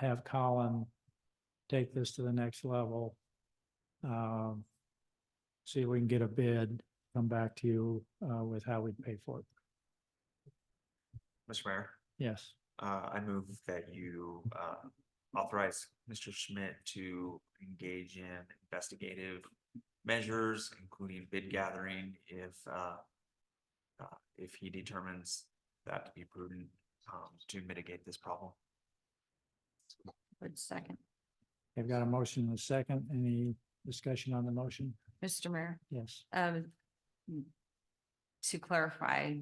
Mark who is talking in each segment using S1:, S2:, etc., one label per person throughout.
S1: have Colin take this to the next level. Um, see if we can get a bid, come back to you, uh, with how we pay for it.
S2: Mr. Mayor,
S1: Yes,
S2: uh, I move that you, uh, authorize Mr. Schmidt to engage in investigative measures, including bid gathering if, uh, uh, if he determines that to be prudent, um, to mitigate this problem.
S3: Would second.
S1: I've got a motion and a second. Any discussion on the motion?
S3: Mr. Mayor,
S1: Yes.
S3: um, to clarify,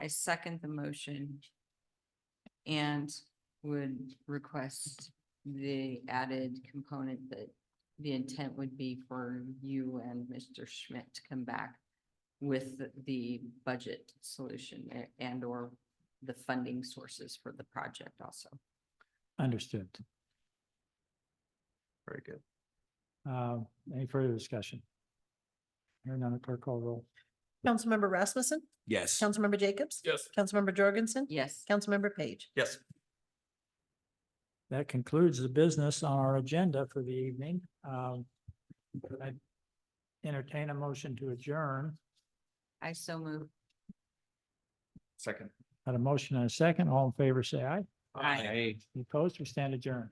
S3: I second the motion and would request the added component that the intent would be for you and Mr. Schmidt to come back with the- the budget solution a- and or the funding sources for the project also.
S1: Understood.
S2: Very good.
S1: Uh, any further discussion? Hearing none, clerk call roll.
S4: Councilmember Rasmussen,
S5: Yes.
S4: Councilmember Jacobs.
S2: Yes.
S4: Councilmember Jorgensen.
S3: Yes,
S4: Councilmember Page.
S2: Yes,
S1: That concludes the business on our agenda for the evening. Um, I entertain a motion to adjourn.
S3: I so move.
S2: second.
S1: Got a motion and a second. All in favor, say aye.
S3: Aye.
S1: Any Opposed or stand adjourned?